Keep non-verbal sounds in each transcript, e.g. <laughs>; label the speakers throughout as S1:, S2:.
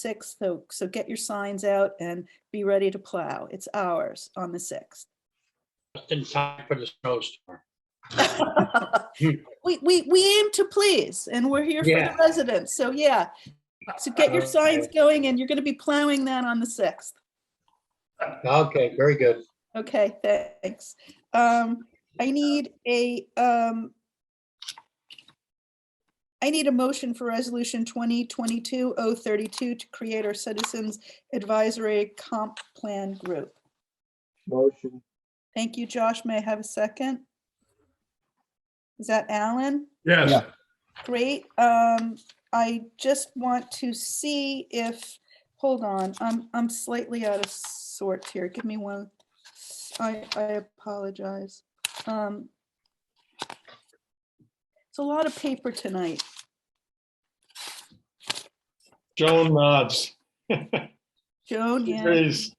S1: sixth, so, so get your signs out and be ready to plow. It's ours on the sixth. <laughs>
S2: Just in time for the snowstorm.
S1: We, we, we aim to please and we're here for the
S2: Yeah.
S1: residents. So yeah. So get your signs going and you're going to be plowing that on the sixth.
S2: Okay, very good.
S1: Okay, thanks. Um, I need a, um, I need a motion for resolution twenty twenty-two oh thirty-two to create our Citizens Advisory Comp Plan Group.
S3: Motion,
S1: Thank you, Josh. May I have a second? Is that Alan?
S3: Yeah.
S4: Yes,
S1: Great. Um, I just want to see if, hold on, I'm, I'm slightly out of sorts here. Give me one. I, I apologize. Um, It's a lot of paper tonight.
S4: Joan nods.
S1: Joan, yeah.
S4: Agrees.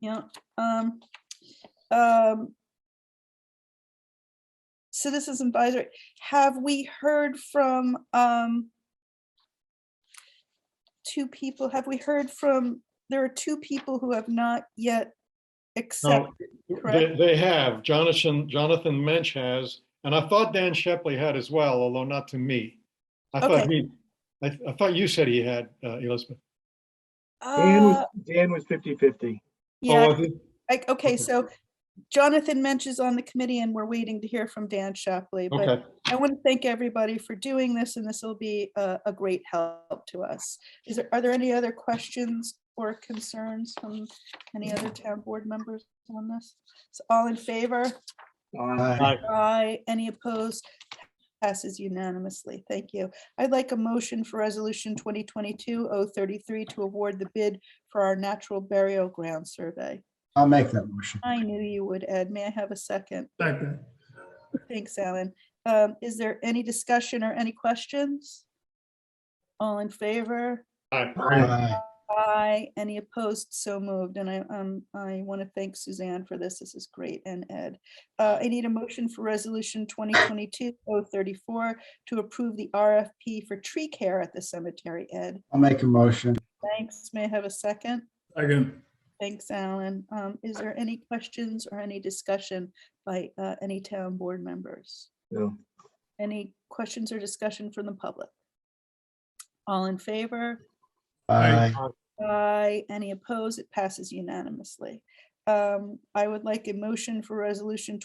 S1: Yeah, um, um. Citizens advisory, have we heard from, um. Two people, have we heard from, there are two people who have not yet
S4: No,
S1: accepted,
S4: They,
S1: correct?
S4: they have. Jonathan, Jonathan Mensch has, and I thought Dan Shepley had as well, although not to me. I thought
S1: Okay.
S4: he, I, I thought you said he had, uh, Elizabeth.
S3: Dan
S1: Uh,
S3: was, Dan was fifty fifty.
S4: Oh,
S1: yeah,
S4: I think-
S1: like, okay,
S4: okay.
S1: so Jonathan Mensch is on the committee and we're waiting to hear from Dan Shapley, but
S4: Okay,
S1: I want to thank everybody for doing this, and this will be a, a great help to us. Is there, are there any other questions or concerns from any other town board members on this? So all in favor?
S3: Aye.
S1: Aye. Any opposed? Passes unanimously. Thank you. I'd like a motion for resolution 2022-033 to award the bid for our natural burial ground survey.
S5: I'll make that motion.
S1: I knew you would, Ed. May I have a second?
S4: Second.
S1: Thanks, Alan. Um, Is there any discussion or any questions? All in favor?
S4: Aye.
S5: Aye.
S1: Aye. Any opposed? So moved. And I, um, I want to thank Suzanne for this. This is great. And Ed. Uh, I need a motion for resolution 2022-034 to approve the RFP for tree care at the cemetery. Ed,
S5: I'll make a motion.
S1: thanks. May I have a second?
S4: Second.
S1: Thanks, Alan. Um, Is there any questions or any discussion by uh, any town board members?
S3: No.
S1: Any questions or discussion from the public? All in favor?
S5: Aye.
S1: Aye. Any opposed? It passes unanimously. Um, I would like a motion for resolution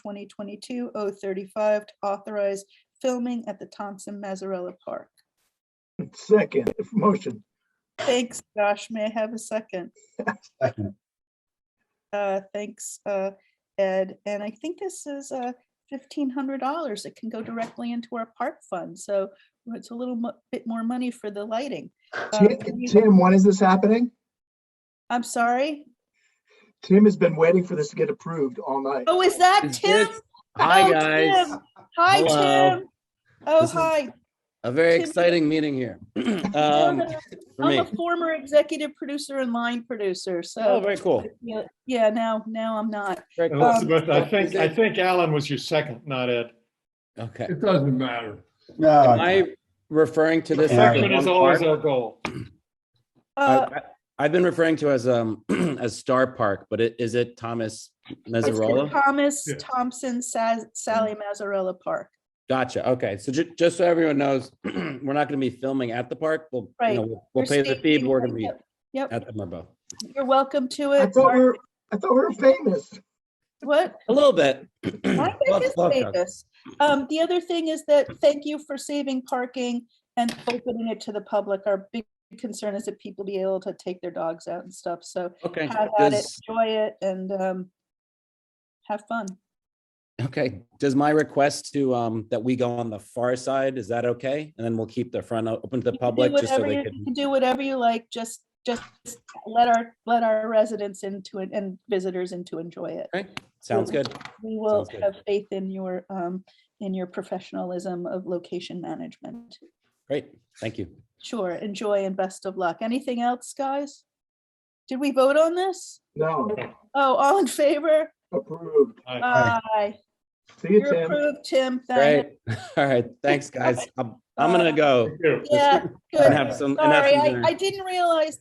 S1: 2022-035 to authorize filming at the Thompson Mazzarella Park.
S3: Second, motion,
S1: Thanks, Josh. May I have a second?
S5: Second.
S1: Uh, thanks, uh, Ed. And I think this is, uh, fifteen hundred dollars. It can go directly into our park fund. So it's a little mo- bit more money for the lighting. Uh,
S3: Ti-
S1: can you-
S3: Tim, when is this happening?
S1: I'm sorry.
S3: Tim has been waiting for this to get approved all night.
S1: Oh, is that
S6: Is
S1: Tim?
S6: this- Hi,
S1: Oh,
S6: guys.
S1: Tim. Hi,
S6: Hello.
S1: Tim. Oh,
S6: This is-
S1: hi.
S6: A very
S1: Tim-
S6: exciting meeting here. <clears throat>
S1: I'm
S6: Um,
S1: a-
S6: for
S1: I'm
S6: me.
S1: a former executive producer and line producer,
S6: Oh,
S1: so,
S6: very cool.
S1: yeah, yeah, now, now I'm not.
S6: Very cool.
S4: Elizabeth,
S1: Um,
S4: I think, I think Alan was your second, not Ed.
S6: Okay.
S7: It doesn't matter.
S6: Am
S5: No,
S6: I referring to this? as
S5: Yeah.
S4: Second
S6: the
S4: is
S6: one
S4: always
S6: park?
S4: our goal.
S1: Uh,
S6: I- I- I've been referring to as, um, <clears throat> as Star Park, but it- is it Thomas
S1: It's
S6: Mezzarola?
S1: Thomas
S4: Yeah.
S1: Thompson Sa- Sally Mazzarella Park.
S6: Gotcha. Okay. So ju- just so everyone knows, <clears throat> we're not going to be filming at the park. We'll, you know,
S1: Right.
S6: we'll-
S1: You're
S6: we'll pay the fee,
S1: staging
S6: but we're going to be
S1: it. Yep,
S6: at the Merbo.
S1: you're welcome to
S3: I
S1: it.
S3: thought we
S1: Mark.
S3: were, I thought we were famous. <clears throat>
S1: What?
S6: A little bit. <clears throat>
S1: I
S6: Love-
S1: think it's
S6: love that.
S1: Vegas. Um, the other thing is that, thank you for saving parking and opening it to the public. Our big concern is that people be able to take their dogs out and stuff, so
S6: Okay.
S1: have at it,
S6: Does-
S1: enjoy it, and, um, have fun.
S6: Okay, does my request to, um, that we go on the far side, is that okay? And then we'll keep the front o- open to the
S1: You can do
S6: public just so
S1: whatever
S6: they
S1: you-
S6: can.
S1: You can do whatever you like, just, just let our, let our residents into it and visitors into enjoy it.
S6: Okay, sounds good.
S1: We will
S6: Sounds good.
S1: have faith in your, um, in your professionalism of location management.
S6: Great, thank you.
S1: Sure, enjoy and best of luck. Anything else, guys? Did we vote on this?
S3: No,
S1: Oh, all in favor?
S3: approved.
S4: Aye.
S5: Aye.
S1: Aye.
S3: See you,
S1: You're
S3: Tim.
S1: approved, Tim. Thank-
S6: <laughs>
S1: <laughs>
S6: Great, all right, thanks, guys. I'll- I'm gonna go
S4: Thank you.
S1: Yeah,
S6: and
S1: good.
S6: have some, and have
S1: Sorry,
S6: some
S1: I,
S6: dinner.
S1: I didn't realize